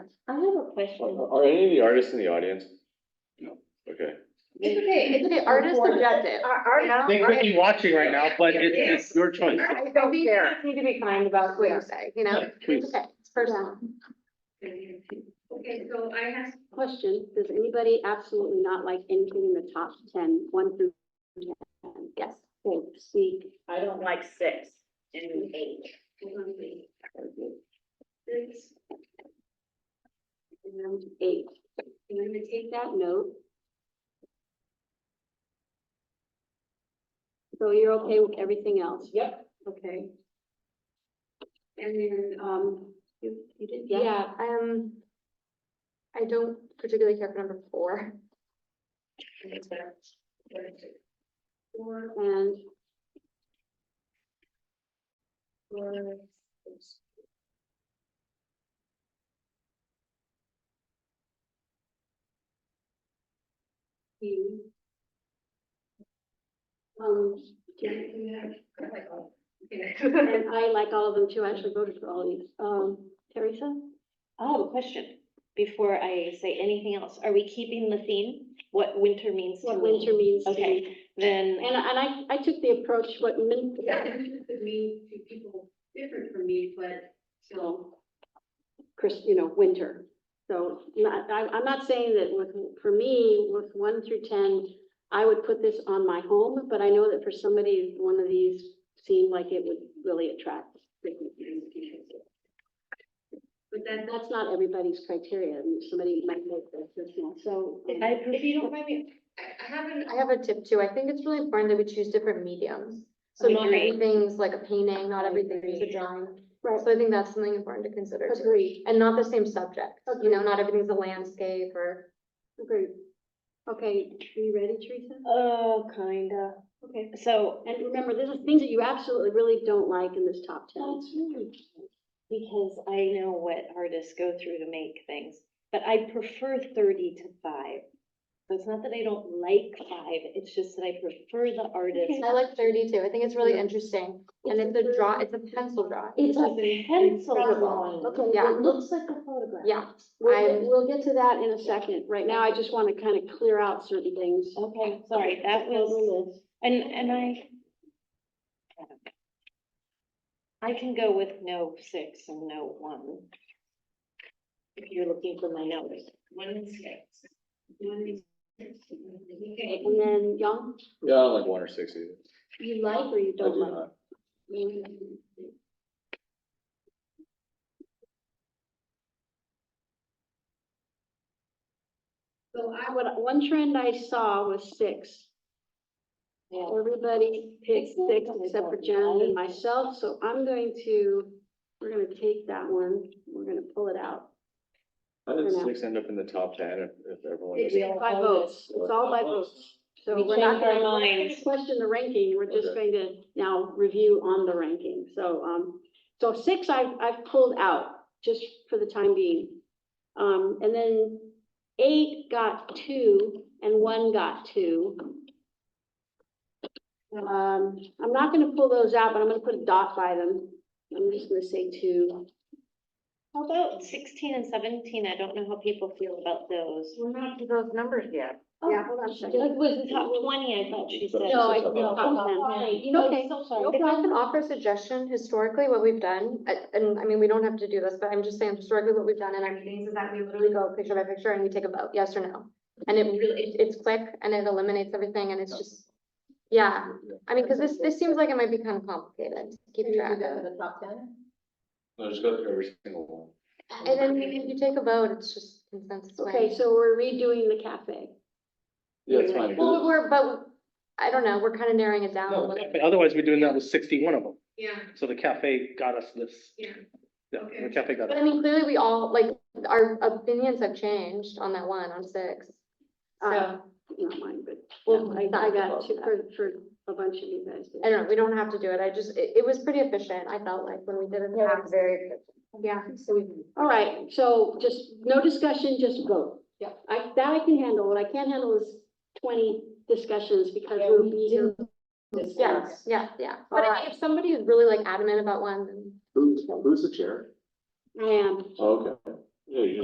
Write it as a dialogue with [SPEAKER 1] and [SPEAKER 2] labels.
[SPEAKER 1] I have a
[SPEAKER 2] Are
[SPEAKER 1] question.
[SPEAKER 2] Uh, are any of the artists in the audience?
[SPEAKER 3] No.
[SPEAKER 2] Okay.
[SPEAKER 1] It's okay, it's okay, artist objective.
[SPEAKER 4] Our, our,
[SPEAKER 3] They could be watching right now, but it's, it's your choice.
[SPEAKER 4] I don't
[SPEAKER 1] We
[SPEAKER 4] care.
[SPEAKER 1] Need to be kind about what you say, you know?
[SPEAKER 3] Please.
[SPEAKER 1] Okay, it's personal.
[SPEAKER 5] Okay, so I have.
[SPEAKER 1] Question, does anybody absolutely not like anything in the top ten, one through ten? Yes, so C.
[SPEAKER 4] I don't like six and eight.
[SPEAKER 5] This,
[SPEAKER 1] And eight. And I'm gonna take that note. So you're okay with everything else?
[SPEAKER 4] Yep.
[SPEAKER 1] Okay.
[SPEAKER 5] and then,
[SPEAKER 1] Um, you, you did, yeah,
[SPEAKER 6] Yeah, um, I don't particularly care for number four.
[SPEAKER 5] four,
[SPEAKER 1] and you. Um, and I like all of them too, I actually voted for all of these, um, Teresa?
[SPEAKER 7] I have a Oh, question before I say anything else. Are we keeping the theme? What winter means to
[SPEAKER 1] What winter
[SPEAKER 7] me?
[SPEAKER 1] means to
[SPEAKER 7] Okay.
[SPEAKER 1] me.
[SPEAKER 7] Then,
[SPEAKER 1] And, and I, I took the approach, what min,
[SPEAKER 5] It means to people different from me, but still.
[SPEAKER 1] Chris, you know, winter. So not, I, I'm not saying that with, for me, with one through ten, I would put this on my home, but I know that for somebody, one of these seemed like it would really attract.
[SPEAKER 5] But
[SPEAKER 1] And
[SPEAKER 5] then
[SPEAKER 1] that's not everybody's criteria, and somebody might make that personal, so. um,
[SPEAKER 7] I, if you don't mind me,
[SPEAKER 6] I, I have an, I have a tip too. I think it's really important that we choose different mediums. So
[SPEAKER 7] I
[SPEAKER 6] not
[SPEAKER 7] agree.
[SPEAKER 6] everything's like a painting, not
[SPEAKER 7] I
[SPEAKER 6] everything is a
[SPEAKER 7] agree.
[SPEAKER 6] drawing.
[SPEAKER 1] Right.
[SPEAKER 6] So I think that's something important to consider too.
[SPEAKER 1] Agreed,
[SPEAKER 6] And not the same subject, you know, not everything's a landscape or.
[SPEAKER 1] agreed. Okay, are you ready, Teresa?
[SPEAKER 7] oh, kinda.
[SPEAKER 1] Okay.
[SPEAKER 7] So,
[SPEAKER 1] And remember, this is things that you absolutely really don't like in this top ten.
[SPEAKER 7] because I know what artists go through to make things, but I prefer thirty to five. So it's not that I don't like five, it's just that I prefer the artist.
[SPEAKER 6] I like thirty too. I think it's really interesting. And it's a draw, it's a pencil drawing.
[SPEAKER 1] It's a
[SPEAKER 7] pencil
[SPEAKER 1] drawing. Okay,
[SPEAKER 6] Yeah.
[SPEAKER 1] it looks like a photograph.
[SPEAKER 6] Yeah,
[SPEAKER 1] We'll, get-
[SPEAKER 6] I'm-
[SPEAKER 1] we'll get to that in a second. Right now, I just want to kind of clear out certain things.
[SPEAKER 7] Okay, sorry, that was, and, and I. I can go with no six and no one. If you're looking for my numbers.
[SPEAKER 5] one and six. One and six. Okay.
[SPEAKER 1] And then Young,
[SPEAKER 2] Yeah, I don't like one or six either.
[SPEAKER 1] you like or you
[SPEAKER 2] I do
[SPEAKER 1] don't like?
[SPEAKER 2] not.
[SPEAKER 5] So I
[SPEAKER 1] I would, one trend I saw was six.
[SPEAKER 7] Yeah.
[SPEAKER 1] Everybody picked
[SPEAKER 7] It's not
[SPEAKER 1] six
[SPEAKER 7] that I
[SPEAKER 1] except for
[SPEAKER 7] don't
[SPEAKER 1] Jen and
[SPEAKER 7] like-
[SPEAKER 1] myself, so I'm going to, we're gonna take that one, we're gonna pull it out.
[SPEAKER 2] How did
[SPEAKER 1] For now.
[SPEAKER 2] six end up in the top ten if, if everyone?
[SPEAKER 1] It's
[SPEAKER 2] is-
[SPEAKER 7] We all
[SPEAKER 1] by
[SPEAKER 7] voted.
[SPEAKER 1] votes, it's all by votes. So
[SPEAKER 7] We
[SPEAKER 1] we're not
[SPEAKER 7] changed our
[SPEAKER 1] gonna we're not gonna
[SPEAKER 7] minds.
[SPEAKER 1] question the ranking, we're just going
[SPEAKER 2] Okay.
[SPEAKER 1] to now review on the ranking. So, um, so six I've, I've pulled out just for the time being. Um, and then eight got two and one got two. Um, I'm not gonna pull those out, but I'm gonna put a dot by them. I'm just gonna say two.
[SPEAKER 7] How about sixteen and seventeen? I don't know how people feel about those.
[SPEAKER 4] We're not to those numbers yet.
[SPEAKER 1] Yeah, hold on a
[SPEAKER 7] Like,
[SPEAKER 1] second.
[SPEAKER 7] was the top twenty, I thought she said.
[SPEAKER 2] No, I- no,
[SPEAKER 7] You know,
[SPEAKER 1] Okay.
[SPEAKER 7] so sorry.
[SPEAKER 6] If I can offer a suggestion, historically, what we've done, a- and I mean, we don't have to do this, but I'm just saying historically what we've done in our meetings is that we literally go picture by picture and we take a vote, yes or no. And it really, it- it's quick and it eliminates everything and it's just, yeah. I mean, because this, this seems like it might be kind of complicated to keep track of.
[SPEAKER 4] the top ten?
[SPEAKER 2] No, just go through every single one.
[SPEAKER 6] And then if you take a vote, it's just consensus.
[SPEAKER 1] Okay, so we're redoing the cafe.
[SPEAKER 2] Yeah, it's fine.
[SPEAKER 6] Well, but we're, but I don't know, we're kind of narrowing it down a
[SPEAKER 3] No,
[SPEAKER 6] little.
[SPEAKER 3] but Otherwise, we're doing that with sixty-one of them.
[SPEAKER 5] Yeah,
[SPEAKER 3] So the cafe got us this.
[SPEAKER 5] yeah.
[SPEAKER 3] Yeah, the
[SPEAKER 5] Okay.
[SPEAKER 3] cafe got
[SPEAKER 6] But
[SPEAKER 3] us.
[SPEAKER 6] I mean, clearly we all, like, our opinions have changed on that one, on six. Um,
[SPEAKER 1] Uh,
[SPEAKER 6] So,
[SPEAKER 1] Not mine, but
[SPEAKER 6] Well,
[SPEAKER 1] I, I
[SPEAKER 6] not
[SPEAKER 1] got
[SPEAKER 6] both.
[SPEAKER 1] two for, for a bunch of you guys.
[SPEAKER 6] I don't know, we don't have to do it, I just, it, it was pretty efficient, I felt like, when we did it.
[SPEAKER 4] very good.
[SPEAKER 6] Yeah.
[SPEAKER 1] All right, so just, no discussion, just vote. Yeah. I, that I can handle, what I can't handle is twenty discussions because
[SPEAKER 4] Yeah,
[SPEAKER 1] we'll
[SPEAKER 4] we
[SPEAKER 1] be here.
[SPEAKER 6] Yeah, yeah, yeah, but I
[SPEAKER 1] Alright.
[SPEAKER 6] mean, if somebody is really like adamant about one, then.
[SPEAKER 2] Who's, who's the chair?
[SPEAKER 1] I am.
[SPEAKER 2] Oh, Okay. Yeah, you